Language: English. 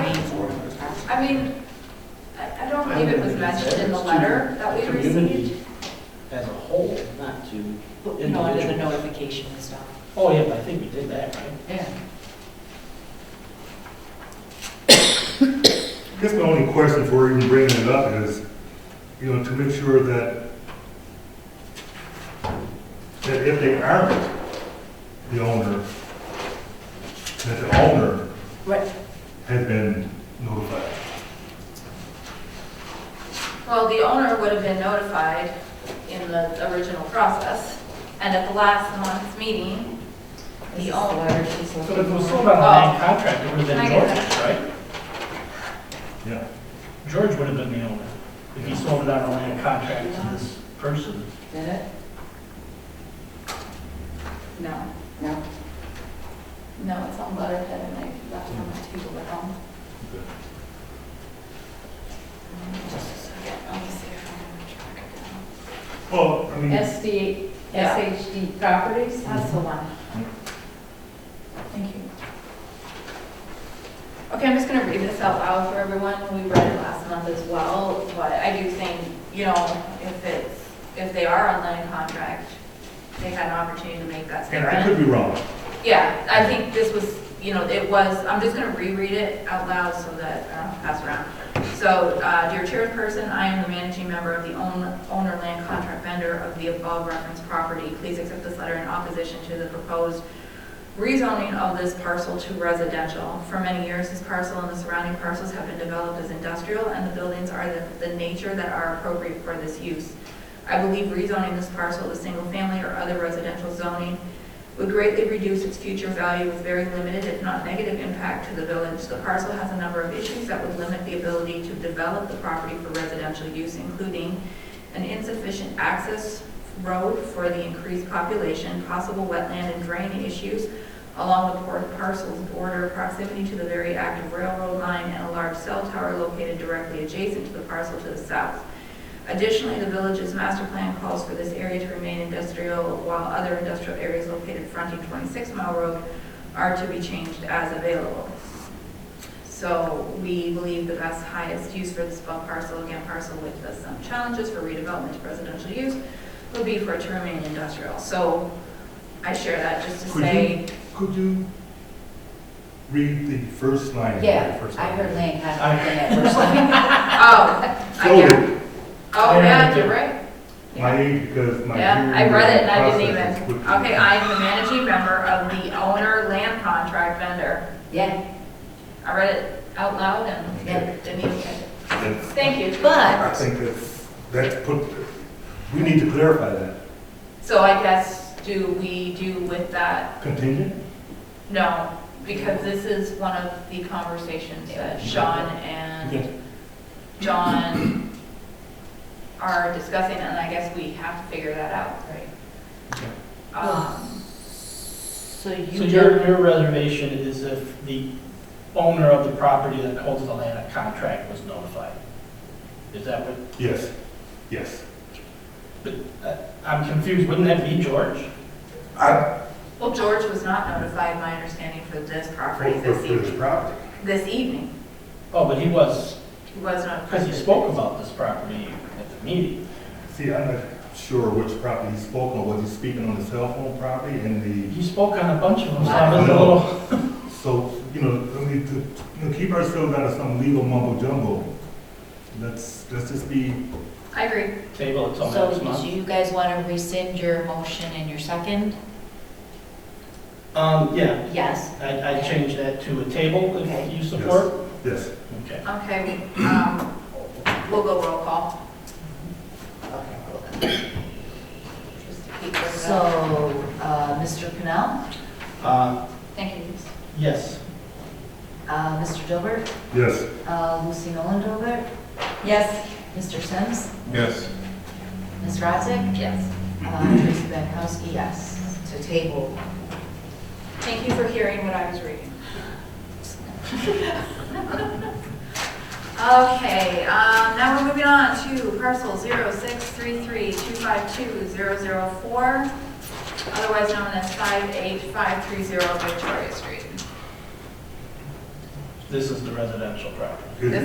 I mean, I, I don't I believe it don't was think it's mentioned in the there. letter that we received. Community as a whole, not to, You know, under the notification and stuff. oh, yeah, but I think we did that, right? Yeah. I guess my only question for even bringing it up is, you know, to make sure that, that if they aren't the owner, that the owner Right, had been notified. Well, the owner would have been notified in the original process, and at the last month's meeting, this is the the owner. letter she's looking But if it was sold for. on a land contract, it would Oh. have I been get George's, right? Yeah. George would have been the owner, if he sold it on a land contract to this person. Did it? No, No. no, it's on letterhead and I left it on my table at home. Just a second, let me see if I can track it down. Well, I mean, SD, Yeah. SHD Properties? That's the one. Thank you. Okay, I'm just gonna read this out loud for everyone. We read it last month as well, but I do think, you know, if it's, if they are on land contract, they had an opportunity to make that and I statement. could be wrong. Yeah, I think this was, you know, it was, I'm just gonna reread it out loud so that, uh, pass around. So, uh, dear chairperson, I am the managing member of the own- owner land contract vendor of the above referenced property. Please accept this letter in opposition to the proposed rezoning of this parcel to residential. For many years, this parcel and the surrounding parcels have been developed as industrial, and the buildings are the, the nature that are appropriate for this use. I believe rezoning this parcel to single-family or other residential zoning would greatly reduce its future value with very limited, if not negative, impact to the village. The parcel has a number of issues that would limit the ability to develop the property for residential use, including an insufficient access road for the increased population, possible wetland and drain issues along the por- parcel's border, proximity to the very active railroad line, and a large cell tower located directly adjacent to the parcel to the south. Additionally, the village's master plan calls for this area to remain industrial, while other industrial areas located fronting 26 Mile Road are to be changed as available. So we believe the best highest use for this bulk parcel, again parcel with the some challenges for redevelopment to residential use, would be for it to remain industrial. So I share that just to Could you- say, Could you read the first line? of the Yeah, first I heard line? land contract in that first line. oh, I get it. Noted, Oh, yeah, you're right. my age, because my. Yeah, I hearing read it and I didn't process is even, quick. okay, I am the managing member of the owner land contract vendor. Yeah, I read it out loud and yeah. didn't even catch it. That's- Thank you. I But, think that's, that's put, we need to clarify that. So I guess, do we do with that? Contingent? No, because this is one of the conversations that Sean and John are discussing, and I guess we have to figure that out, right? Um, so So you your, don't, your reservation is if the owner of the property that holds the land contract was notified? Is that what, Yes, yes. but uh, I'm confused, wouldn't that be George? I, Well, George was not notified, my understanding, for this property for, for this for this evening. property. This evening, Oh, but he was, he was not because he spoke about this property at the meeting. See, I'm not sure which property he's spoken on, was he speaking on the cell phone property and He spoke on a bunch of them, so I was a little, the, so, you know, we need to, you know, keep ourselves out of some legal mumbo jumbo. Let's, let's just be, I agree. table until next so month. you guys want to rescind your motion and your second? Um, yeah, Yes. I, I changed that to a table if Okay. you support. yes. Okay. Okay, um, we'll go roll call, Okay. cool. just to keep this So, up. uh, Mr. Pennell, Uh, Thank you. Denise. yes, uh, Mr. Dilbert, Yes. uh, Lucy Nolan Dilbert, Yes. Mr. Sims, Yes. Ms. Radzik, Yes. uh, Tracy Benkowski, yes, to table. Thank you for hearing what I was reading. Okay, um, now we're moving on to parcel zero six three three two five two zero zero four, otherwise known as five eight five three zero Victoria Street. this is the residential property. Is-